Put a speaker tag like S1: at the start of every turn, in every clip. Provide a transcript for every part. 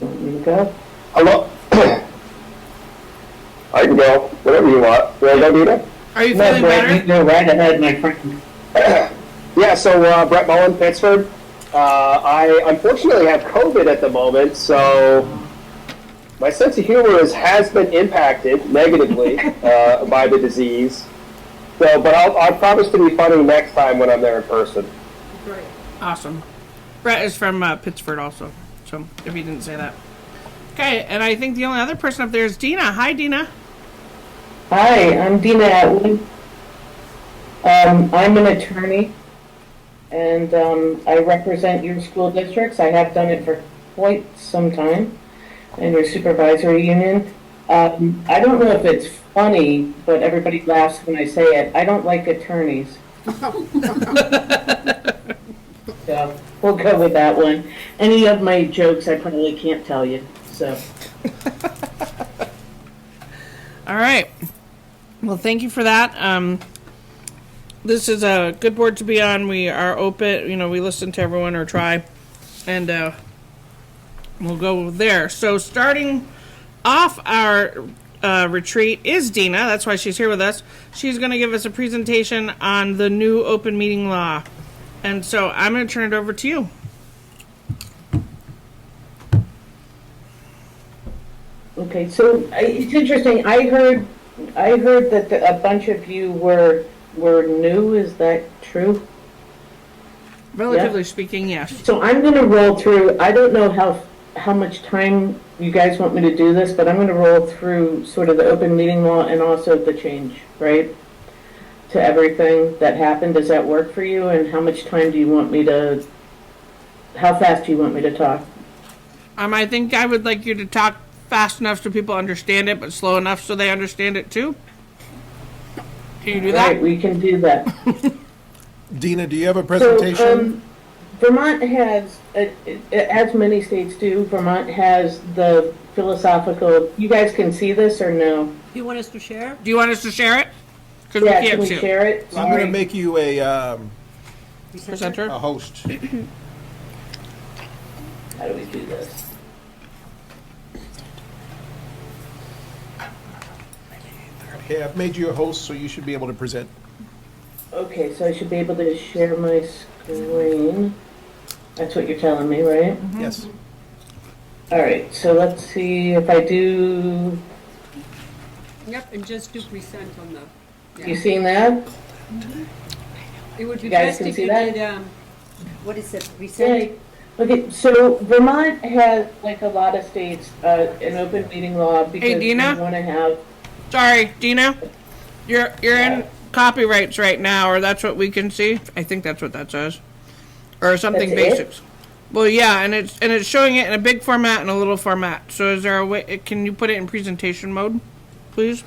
S1: you go?
S2: I love. I can go, whatever you want. Will I go, Dita?
S3: Are you
S1: No,
S3: feeling
S1: Brett,
S3: better?
S1: you go right ahead, my friend.
S2: Yeah, so uh, Brett Mullen, Pittsford. Uh, I unfortunately have COVID at the moment, so my sense of humor is, has been impacted negatively uh, by the disease. So, but I'll, I promise to be funny next time when I'm there in person.
S3: Awesome. Brett is from uh, Pittsford also, so if he didn't say that. Okay, and I think the only other person up there is Dina. Hi, Dina.
S1: Hi, I'm Dina Atwood. Um, I'm an attorney, and, um, I represent your school districts. I have done it for quite some time, and your supervisory union. Um, I don't know if it's funny, but everybody laughs when I say it. I don't like attorneys. So, we'll go with that one. Any of my jokes, I probably can't tell you, so.
S3: All right. Well, thank you for that. Um, this is a good board to be on. We are open, you know, we listen to everyone or try, and uh, we'll go there. So, starting off our uh, retreat is Dina. That's why she's here with us. She's going to give us a presentation on the new open meeting law. And so, I'm going to turn it over to you.
S1: Okay, so I- it's interesting, I heard, I heard that the- a bunch of you were, were new, is that true?
S3: Relatively speaking, yes.
S1: So I'm gonna roll through, I don't know how, how much time you guys want me to do this, but I'm gonna roll through sort of the open meeting law and also the change, right? To everything that happened, does that work for you, and how much time do you want me to, how fast do you want me to talk?
S3: Um, I think I would like you to talk fast enough so people understand it, but slow enough so they understand it too. Can you do
S1: Right,
S3: that?
S1: we can do that.
S4: Dina, do you have a
S1: So,
S4: presentation?
S1: um, Vermont has, uh, uh, as many states do, Vermont has the philosophical, you guys can see this or no?
S5: You want us to share?
S3: Do you want us to share it? Because
S1: Yeah,
S3: we
S1: can
S3: can't
S1: we
S3: see
S1: share it?
S4: I'm going
S1: Sorry.
S4: to make you a, um,
S3: Presenter.
S4: a host.
S1: How do we do this?
S4: Okay, I've made you a host, so you should be able to present.
S1: Okay, so I should be able to share my screen. That's what you're telling me, right?
S4: Yes.
S1: All right, so let's see if I do,
S5: Yep, and just do present on the,
S1: you seeing that?
S5: it would be
S1: You guys
S5: best
S1: can
S5: if
S1: see
S5: you
S1: that?
S5: did, um, what is it, present?
S1: Yay. Okay, so Vermont has, like a lot of states, uh, an open meeting law because we
S3: Dina?
S1: want to have
S3: Sorry, Dina. You're you're in copyrights right now, or that's what we can see. I think that's what that says, or something
S1: That's it?
S3: basics. Well, yeah, and it's and it's showing it in a big format and a little format. So is there a way? Can you put it in presentation mode, please?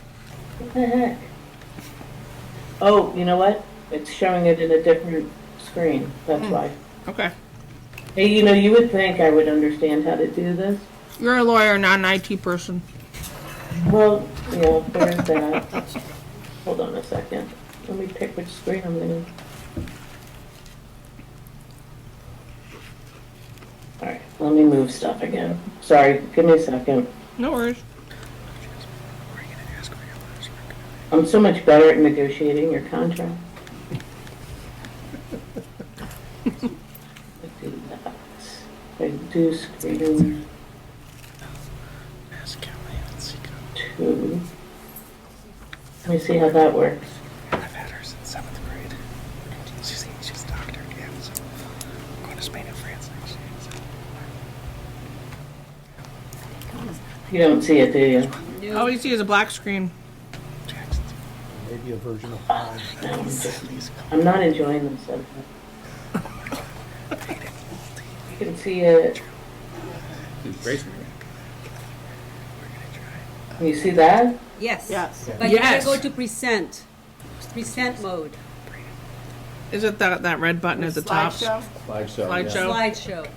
S1: the heck? Oh, you know what? It's showing it in a different screen, that's why.
S3: Okay.
S1: Hey, you know, you would think I would understand how to do this.
S3: You're a lawyer, not an IT person.
S1: Well, yeah, there's that. Hold on a second. Let me pick which screen I'm gonna. Alright, let me move stuff again. Sorry, give me a second.
S3: No worries.
S1: I'm so much better at negotiating your contract. Let's do that. Reduce screen two. Let me see how that works.
S6: I've had her since seventh grade. She's she's a doctor. Yeah, so I'm going to Spain and France next year. So.
S1: You don't see it, do you?
S3: All we see is a black screen.
S6: Jackson's
S4: Maybe a version of mine.
S1: No, I'm just-
S6: please come.
S1: I'm not enjoying this. so- You can see it. Can You see that?
S5: Yes.
S7: Yes.
S5: But you
S3: Yes.
S5: gotta go to present, present mode,
S3: Is it that that red button at the top?
S7: Slideshow?
S3: Slideshow.
S5: slideshow.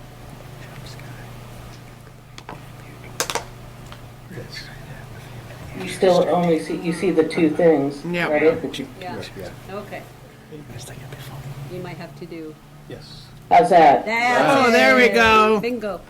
S1: You still only see, you see the two things,
S3: Yeah.
S1: right?
S5: Yeah,
S4: Yeah.
S5: okay. You might have to do
S4: Yes.
S1: How's that?
S5: that.
S3: Oh, there we go.
S5: Bingo.